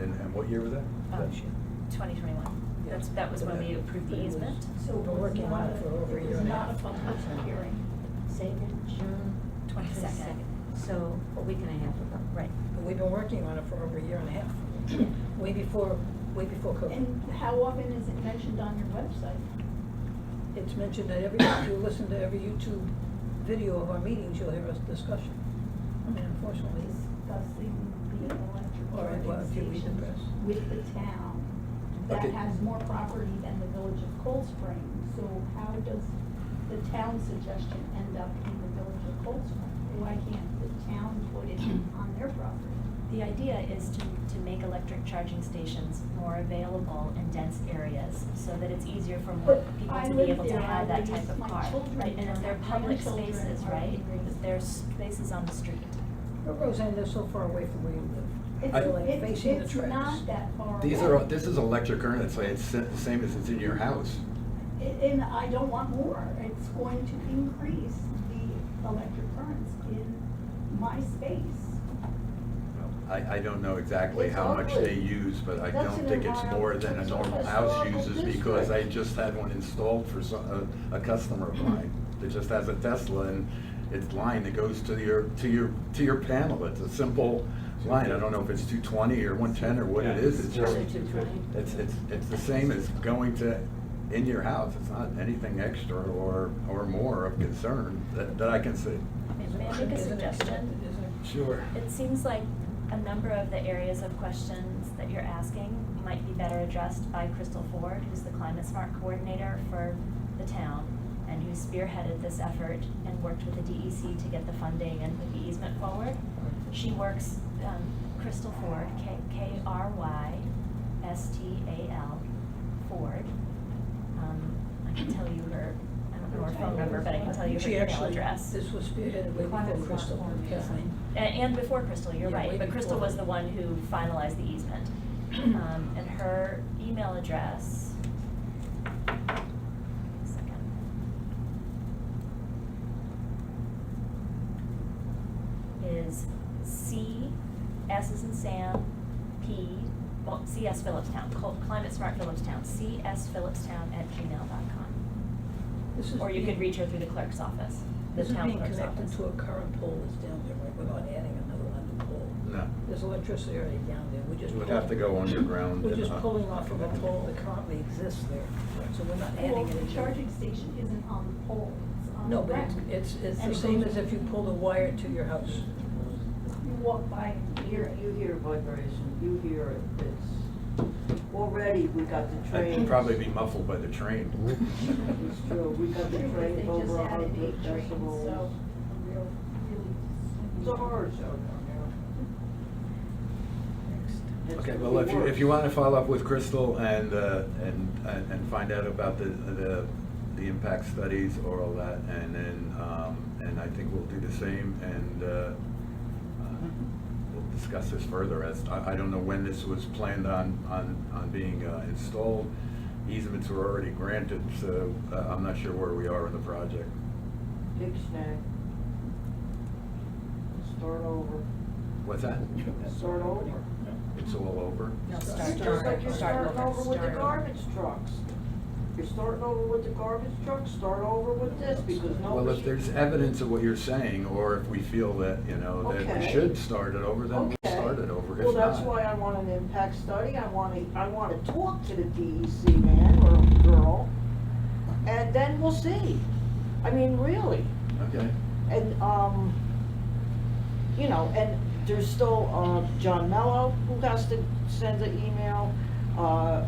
And, and what year was that? Oh, shoot, 2021. That's, that was when we approved the easement. So We're working on it for over a year It's and a not a half. public hearing. Say that June 22nd. So a week and a half ago. Right. But we've been working on it for over a year and a half. Way before, way before COVID. And how often is it mentioned on your website? It's mentioned that every, if you listen to every YouTube video of our meetings, you'll hear us discussion. I mean, unfortunately, Discussing the electric or if charging if you read the stations press. with the town that Okay. has more property than the village of Cold Spring. So how does the town suggestion end up in the village of Cold Spring? Why can't the town put it on their property? The idea is to, to make electric charging stations more available in dense areas so that it's easier for more But people to I live be able to there, I have that raise type of my car. children, Right, and if they're my public grandchildren spaces, are right, being raised- there's spaces on the street. But Roseanne, they're so far away from where you live. It's, I- They're, like, it's, facing the it's tracks. not that far away. These are, this is electric current, it's like, it's the same as it's in your house. A- And I don't want more. It's going to increase the electric currents in my space. I, I don't know exactly It's how much they ugly. use, but I That's don't an think it's more than a environmental normal house historical uses because I district. just had one installed for some, a, a customer of mine that just has a Tesla and it's line that goes to your, to your, to your panel. It's a simple line. I don't know if it's two twenty or one ten or what it Yeah, is. It's just, Probably two fifty. it's, it's, it's the same as going to, in your house. It's not anything extra or, or more of concern that, that I can see. May may I make a Isn't it suggestion? connected, isn't it? Sure. It seems like a number of the areas of questions that you're asking might be better addressed by Crystal Ford, who's the climate smart coordinator for the town and who spearheaded this effort and worked with the DEC to get the funding and put the easement forward. She works, um, Crystal Ford, K, K R Y S T A L, Ford. Um, I can tell you her, I don't know her phone number, but I can tell you her She email actually- address. This was spearheaded way before Crystal, Kathleen. A- And before Crystal, you're Yeah, right, way but Crystal before. was the one who finalized the easement. Um, And her email address. second, Is C, S is in Sam, P, well, CS Phillipstown, Col- Climate Smart Phillipstown, CS Phillipstown at gmail.com. This is Or you being- could reach her through the clerk's office, the This is town being clerk's connected office. to a current pole that's down there, right, without adding another one to pole. No. There's electricity already down there, we're just. It would have to go underground. We're and uh, just up. pulling off of a pole that currently exists there, so we're not Well, adding the any. charging station isn't on the pole, it's on the No, but rack. it's- it's, it's And the it same goes- as if you pulled a wire to your house. You walk by and You, hear it. you hear vibration, you hear it, it's, already we got the I'd train. probably be muffled by the train. It's true, we got the True, but train They just over a added hundred eight trains, so. decibels. real- really- It's a horror show down there. It's Okay, gonna well, be if you, if you worse. want to follow up with Crystal and, uh, and, and- and find out about the, the, the impact studies or all that, and then, um, and I think we'll do the same, and, uh, uh, we'll discuss this further, as, I, I don't know when this was planned on, on, on being uh, installed. Easements were already granted, so uh, I'm not sure where we are in the project. Big snack. Start over, What's that? start over. It's all over? No, You're start Just like over, you're start starting over, over with the start over. garbage trucks. You're starting over with the garbage trucks, start over with this, because Well, if nobody's. there's evidence of what you're saying, or if we feel that, you know, that we Okay. should start it over, then we'll Okay. start it over. Well, If that's not- why I want an impact study, I wanna, I wanna talk to the DEC man or girl, and then we'll see. I mean, really, Okay, and, um, you know, and there's still, uh, John Mello, who has to send the email, uh, uh,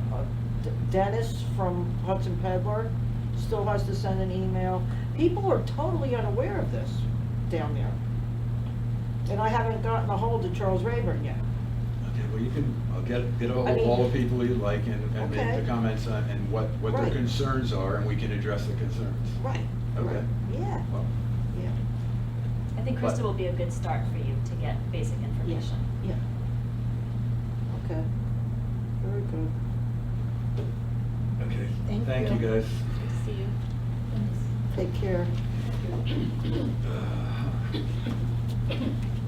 D- Dennis from Hudson Peddler still has to send an email. People are totally unaware of this down there. And I haven't gotten a hold of Charles Rayburn yet. okay, well, you can, I'll get, get all, I mean- all the people you like and, and make Okay. the comments on, and what, what their Right. concerns are, and we can address the concerns. Right. Okay. Yeah, Well, yeah, I think But- Krista will be a good start for you to get basic information. yeah. Okay, very good. okay. Thank Thank you, you. guys. Good to see you. Take care. Uh,